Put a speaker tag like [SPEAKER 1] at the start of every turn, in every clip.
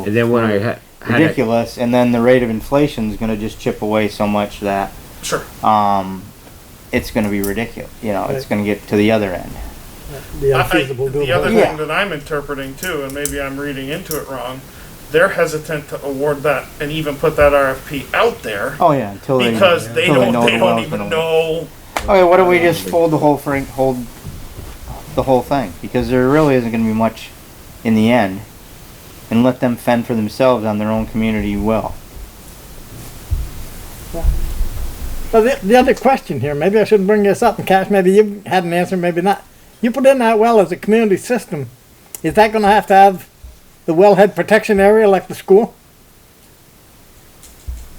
[SPEAKER 1] And then when I ha- had it-
[SPEAKER 2] ridiculous, and then the rate of inflation is going to just chip away so much that
[SPEAKER 3] Sure.
[SPEAKER 2] um, it's going to be ridiculous. You know, it's
[SPEAKER 4] Right.
[SPEAKER 2] going to get to the other end.
[SPEAKER 4] The
[SPEAKER 3] I- I-
[SPEAKER 4] unfeasible
[SPEAKER 3] The other
[SPEAKER 4] doable.
[SPEAKER 2] Yeah.
[SPEAKER 3] thing that I'm interpreting too, and maybe I'm reading into it wrong, they're hesitant to award that and even put that RFP out there
[SPEAKER 2] Oh yeah, Oh, until they
[SPEAKER 3] because they
[SPEAKER 2] until
[SPEAKER 3] don't,
[SPEAKER 2] know
[SPEAKER 3] they
[SPEAKER 2] the
[SPEAKER 3] don't
[SPEAKER 2] well's
[SPEAKER 3] even
[SPEAKER 2] gonna-
[SPEAKER 3] know.
[SPEAKER 2] Okay, what do we just fold the whole thing? Hold the whole thing because there really isn't going to be much in the end, and let them fend for themselves on their own community well.
[SPEAKER 4] Well, the, the other question here, maybe I should bring this up, and Cash, maybe you had an answer, maybe not. You put in that well as a community system, is that gonna have to have the wellhead protection area like the school?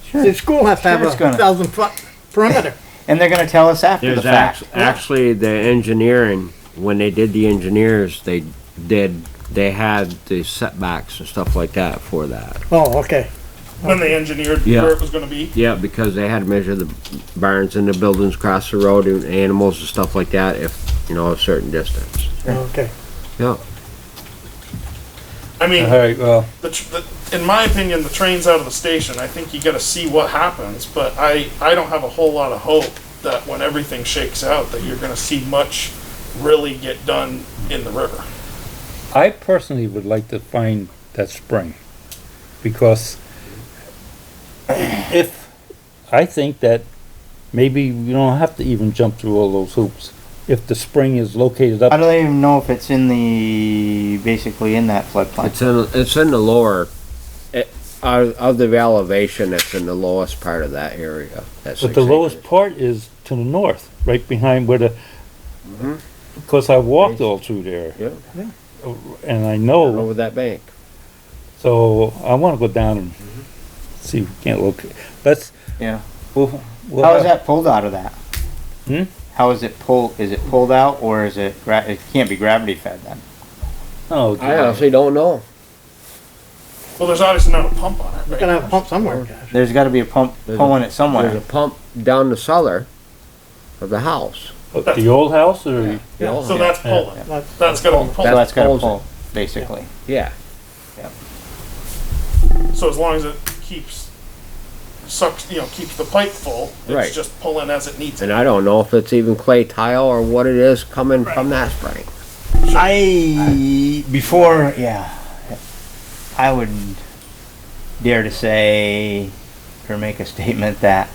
[SPEAKER 2] Sure.
[SPEAKER 4] The school has to have
[SPEAKER 2] Sure
[SPEAKER 4] a
[SPEAKER 2] it's gonna.
[SPEAKER 4] thousand foot perimeter.
[SPEAKER 2] And they're going to tell us after the
[SPEAKER 1] There's
[SPEAKER 2] fact.
[SPEAKER 1] act- actually the engineering, when they did the engineers, they did, they had the setbacks and stuff like that for that.
[SPEAKER 4] Oh, okay,
[SPEAKER 3] When they engineered
[SPEAKER 1] Yeah.
[SPEAKER 3] where it was gonna be.
[SPEAKER 1] Yeah, because they had to measure the barns and the buildings across the road and animals and stuff like that if, you know, a certain distance.
[SPEAKER 4] okay.
[SPEAKER 1] Yeah.
[SPEAKER 3] I mean,
[SPEAKER 5] Alright, well,
[SPEAKER 3] the, tr- the, in my opinion, the train's out of the station. I think you got to see what happens, but I, I don't have a whole lot of hope that when everything shakes out, that you're going to see much really get done in the river.
[SPEAKER 5] I personally would like to find that spring, because if, I think that maybe we don't have to even jump through all those hoops, if the spring is located
[SPEAKER 2] How do
[SPEAKER 5] up,
[SPEAKER 2] they even know if it's in the basically in that floodplain?
[SPEAKER 1] It's in, it's in the lower, it, of, of the elevation, it's in the lowest part of that area. that
[SPEAKER 5] but
[SPEAKER 1] six
[SPEAKER 5] the lowest
[SPEAKER 1] acres.
[SPEAKER 5] part is to the north, right behind where the, because I walked all through there. Uh,
[SPEAKER 1] Yeah.
[SPEAKER 5] And I know,
[SPEAKER 1] Over that bank.
[SPEAKER 5] so I wanna go down and see, if we can't locate, let's,
[SPEAKER 2] Yeah.
[SPEAKER 5] we'll, we'll
[SPEAKER 2] How is
[SPEAKER 5] have,
[SPEAKER 2] that pulled out of that?
[SPEAKER 5] Hmm?
[SPEAKER 2] How is it pulled? Is it pulled out or is it? Gra- it can't be gravity fed then.
[SPEAKER 5] no,
[SPEAKER 1] I honestly don't know.
[SPEAKER 3] Well, there's obviously not a pump on it, right?
[SPEAKER 4] Gotta have a pump somewhere, Cash.
[SPEAKER 2] There's got to be a pump
[SPEAKER 1] There's a-
[SPEAKER 2] pulling it
[SPEAKER 1] There's a
[SPEAKER 2] somewhere.
[SPEAKER 1] pump down the cellar of the house.
[SPEAKER 5] the old house or?
[SPEAKER 1] The old
[SPEAKER 3] So
[SPEAKER 1] house.
[SPEAKER 3] that's pulling.
[SPEAKER 4] That's-
[SPEAKER 3] That's going to be
[SPEAKER 2] so
[SPEAKER 3] pulling.
[SPEAKER 2] that's got to
[SPEAKER 1] pulls it.
[SPEAKER 2] pull, basically.
[SPEAKER 1] Yeah,
[SPEAKER 3] So as long as it keeps sucks, you know, keeps the pipe full, it's
[SPEAKER 1] Right.
[SPEAKER 3] just pulling as it needs it.
[SPEAKER 1] and uh, I don't know if it's even clay tile or what it is coming from that spring.
[SPEAKER 2] I before yeah, I would dare to say or make a statement that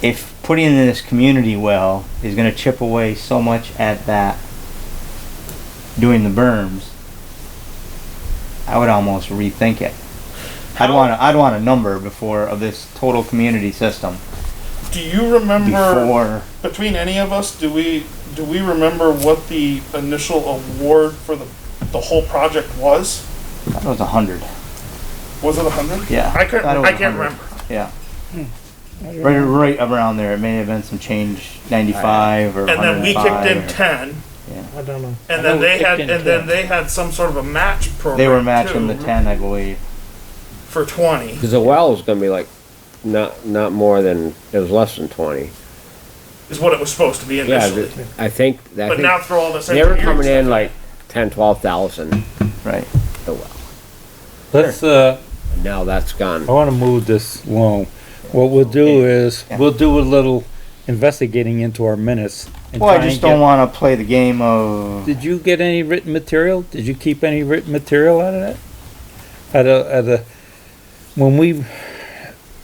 [SPEAKER 2] if putting in this community well is going to chip away so much at that doing the berms, I would almost rethink it. I'd want to, I'd want a number before of this total community system
[SPEAKER 3] Do you remember?
[SPEAKER 2] before
[SPEAKER 3] between any of us, do we do we remember what the initial award for the the whole project was?
[SPEAKER 2] that was a hundred.
[SPEAKER 3] Was it a hundred?
[SPEAKER 2] Yeah,
[SPEAKER 3] I couldn't.
[SPEAKER 2] thought it was
[SPEAKER 3] I can't
[SPEAKER 2] 100.
[SPEAKER 3] remember.
[SPEAKER 2] Yeah. Right, right around there. It may have been some change, ninety-five or
[SPEAKER 3] And then we kicked in
[SPEAKER 2] 105.
[SPEAKER 3] ten,
[SPEAKER 4] I don't know.
[SPEAKER 3] and
[SPEAKER 5] know
[SPEAKER 3] then
[SPEAKER 5] we
[SPEAKER 3] they
[SPEAKER 5] kicked
[SPEAKER 3] had,
[SPEAKER 5] in
[SPEAKER 3] and
[SPEAKER 5] 10.
[SPEAKER 3] then they had some sort of a match program.
[SPEAKER 2] They were matching the
[SPEAKER 3] too,
[SPEAKER 2] ten, I believe.
[SPEAKER 3] for twenty.
[SPEAKER 1] Cause the well is gonna be like, not, not more than, it was less than twenty.
[SPEAKER 3] Is what it was supposed to be
[SPEAKER 1] Yeah,
[SPEAKER 3] initially.
[SPEAKER 1] th- I think, I
[SPEAKER 3] but now
[SPEAKER 1] think,
[SPEAKER 3] through all this
[SPEAKER 1] they were
[SPEAKER 3] engineering
[SPEAKER 1] coming in
[SPEAKER 3] stuff-
[SPEAKER 1] like ten, twelve thousand,
[SPEAKER 2] Right.
[SPEAKER 1] the well.
[SPEAKER 5] Let's, uh,
[SPEAKER 1] Now that's gone.
[SPEAKER 5] I wanna move this along. What we'll do is, we'll do a little investigating into our minutes. and
[SPEAKER 2] Well, I
[SPEAKER 5] try
[SPEAKER 2] just
[SPEAKER 5] and
[SPEAKER 2] don't
[SPEAKER 5] get-
[SPEAKER 2] want to play the game of.
[SPEAKER 5] Did you get any written material? Did you keep any written material out of that? At a, at a, when we,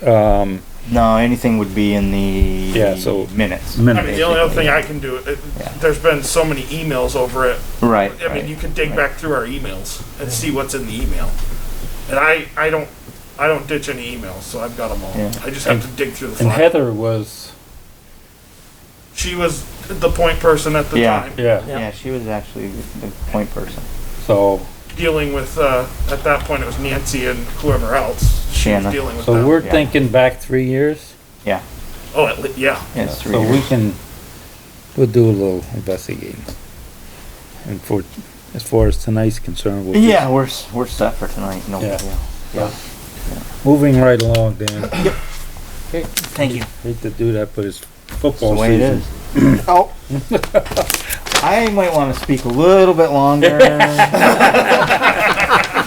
[SPEAKER 5] um,
[SPEAKER 2] No, anything would be in the
[SPEAKER 5] Yeah, so-
[SPEAKER 2] minutes.
[SPEAKER 3] I mean, the only other
[SPEAKER 2] basically.
[SPEAKER 3] thing I can do, it,
[SPEAKER 2] Yeah.
[SPEAKER 3] there's been so many emails over it.
[SPEAKER 2] Right.
[SPEAKER 3] I mean, you can dig back through our emails and see what's in the email. And I, I don't, I don't ditch any emails, so I've got them all.
[SPEAKER 2] Yeah.
[SPEAKER 3] I just have to dig through the
[SPEAKER 5] and
[SPEAKER 3] file.
[SPEAKER 5] Heather was,
[SPEAKER 3] She was the point person at the
[SPEAKER 2] Yeah.
[SPEAKER 3] time,
[SPEAKER 5] yeah,
[SPEAKER 2] Yeah, she was actually the point person.
[SPEAKER 5] so,
[SPEAKER 3] dealing with, uh, at that point it was Nancy and whoever else. She was
[SPEAKER 2] Shanna.
[SPEAKER 3] dealing with
[SPEAKER 5] so
[SPEAKER 3] them.
[SPEAKER 5] we're
[SPEAKER 2] Oh, Yeah.
[SPEAKER 5] thinking back three years.
[SPEAKER 3] Oh, at le- yeah.
[SPEAKER 2] Yes, three
[SPEAKER 5] So we
[SPEAKER 2] years.
[SPEAKER 5] can, we'll do a little investigating. And for, as far as tonight's concerned, we'll. just-
[SPEAKER 2] Yeah, we're s- we're set for tonight. No
[SPEAKER 5] Yeah.
[SPEAKER 2] big deal.
[SPEAKER 5] Moving right along, Dan.
[SPEAKER 2] Thank you.
[SPEAKER 5] Hate to do that, but it's
[SPEAKER 2] That's
[SPEAKER 5] football
[SPEAKER 2] the way it
[SPEAKER 5] season.
[SPEAKER 2] is. oh. I might want to speak a little bit longer.